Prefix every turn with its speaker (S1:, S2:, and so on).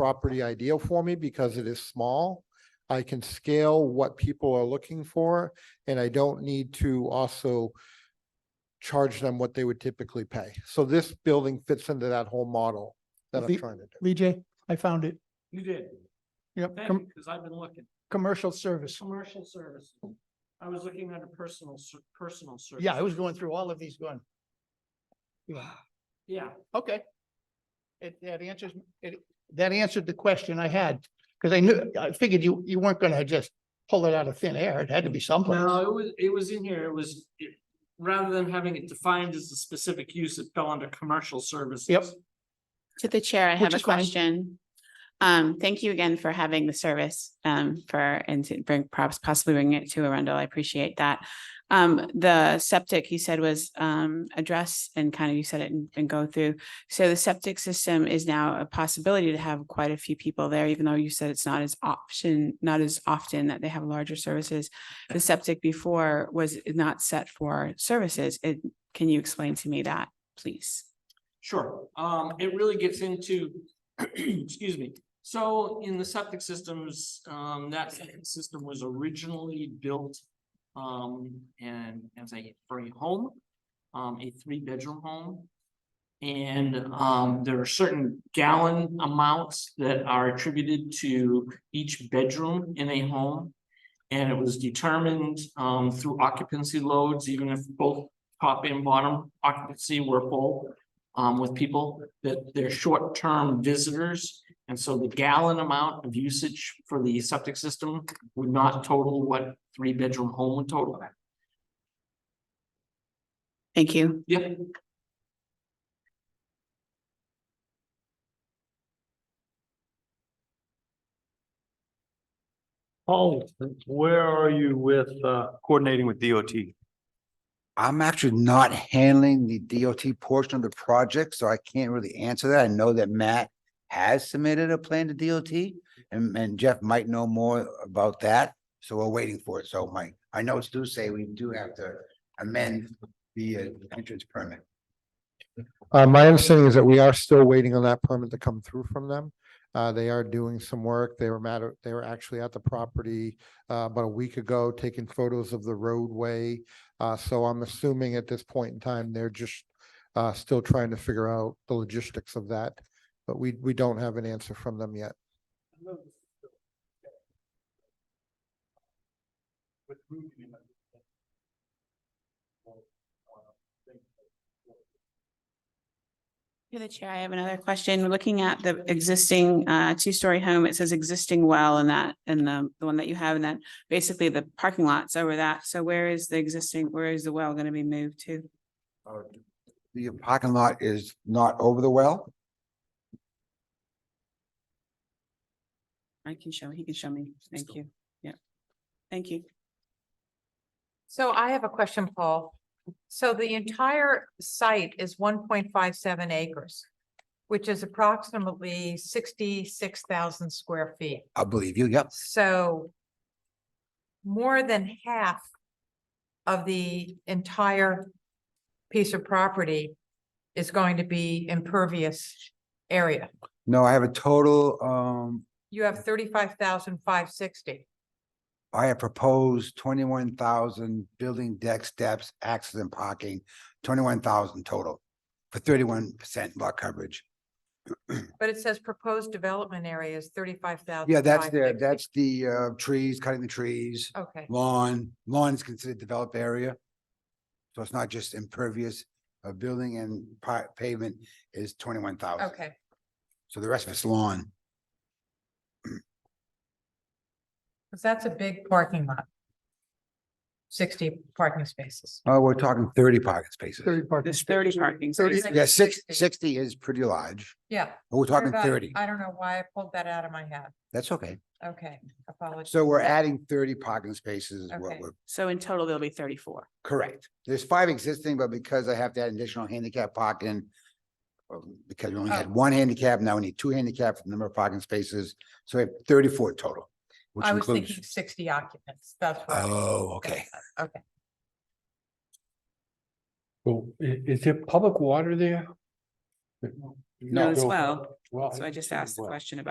S1: property ideal for me because it is small. I can scale what people are looking for and I don't need to also charge them what they would typically pay. So this building fits into that whole model that I'm
S2: The-
S1: trying to do.
S2: Lee J, I found it.
S3: You did.
S2: Yep,
S3: Thank
S2: com-
S3: you, because I've been looking.
S2: commercial service.
S3: Commercial services. I was looking under personal, ser- personal service.
S2: Yeah, I was going through all of these going. Yeah,
S3: Yeah,
S2: okay. It, that answers, it, that answered the question I had, because I knew, I figured you, you weren't gonna just pull it out of thin air. It had to be
S3: no,
S2: someplace.
S3: it was, it was in here. It was, it- rather than having it defined as a specific use, it fell under commercial services.
S2: Yep.
S4: To the chair, I
S2: Which
S4: have a
S2: is fine.
S4: question. Um, thank you again for having the service, um, for, and to bring, perhaps possibly bring it to Arundel. I appreciate that. Um, the septic you said was, um, addressed and kind of you said it and- and go through. So the septic system is now a possibility to have quite a few people there, even though you said it's not as option, not as often that they have larger services. The septic before was not set for services. It, can you explain to me that, please?
S3: Sure, um, it really gets into, excuse me, so in the septic systems, um, that septic system was originally built. Um, and as a, for a home, um, a three-bedroom home. And, um, there are certain gallon amounts that are attributed to each bedroom in a home. And it was determined, um, through occupancy loads, even if both top and bottom occupancy were full um, with people that they're short-term visitors. And so the gallon amount of usage for the septic system would not total what three-bedroom home would total.
S4: Thank you.
S3: Yep.
S5: Paul, where are you with uh, coordinating with DOT?
S6: I'm actually not handling the DOT portion of the project, so I can't really answer that. I know that Matt has submitted a plan to DOT and, and Jeff might know more about that. So we're waiting for it. So my, I notes do say we do have to amend the uh, entrance permit.
S1: Uh, my understanding is that we are still waiting on that permit to come through from them. Uh, they are doing some work. They were matter, they were actually at the property uh, about a week ago, taking photos of the roadway. Uh, so I'm assuming at this point in time, they're just uh, still trying to figure out the logistics of that. But we, we don't have an answer from them yet.
S4: To the chair, I have another question. Looking at the existing uh two-story home, it says existing well in that, in the the one that you have, and then basically the parking lot's over that. So where is the existing, where is the well gonna be moved to?
S6: Uh, The parking lot is not over the well.
S4: I can show, he can show me. Thank you. Yeah. Thank you.
S7: So I have a question, Paul. So the entire site is one point five seven acres, which is approximately sixty-six thousand square feet.
S6: I believe you. Yep.
S7: So more than half of the entire piece of property is going to be impervious area.
S6: No, I have a total, um,
S7: You have thirty-five thousand five sixty.
S6: I have proposed twenty-one thousand building deck steps, access and parking, twenty-one thousand total for thirty-one percent lot coverage.
S7: But it says proposed development area is thirty-five thousand.
S6: Yeah, that's the, that's the uh trees, cutting the trees,
S7: Okay,
S6: lawn, lawn is considered developed area. So it's not just impervious, uh building and pa- pavement is twenty-one thousand.
S7: okay.
S6: So the rest of it's lawn.
S7: Cause that's a big parking lot. Sixty parking spaces.
S6: Oh, we're talking thirty parking spaces.
S4: There's thirty parking
S7: Thirty-
S4: spaces.
S6: Yeah, six,
S7: 60.
S6: sixty is pretty large.
S7: Yeah.
S6: but We're
S7: sorry
S6: talking
S7: about-
S6: thirty.
S7: I don't know why I pulled that out of my head.
S6: That's okay.
S7: Okay, apologies.
S6: So we're adding thirty parking spaces is what
S7: Okay.
S6: we're,
S4: So in total, there'll be thirty-four.
S6: correct. There's five existing, but because I have to add additional handicap parking. um, Because we only had
S7: Oh.
S6: one handicap, now we need two handicap for the number of parking spaces, so we have thirty-four total, which
S7: I was
S6: includes.
S7: thinking sixty occupants. That's what. I was
S6: Oh, okay.
S7: thinking. Okay,
S5: Well, i- is there public water there?
S4: No, as well.
S5: Well,
S4: So I just asked the
S5: well.
S4: question about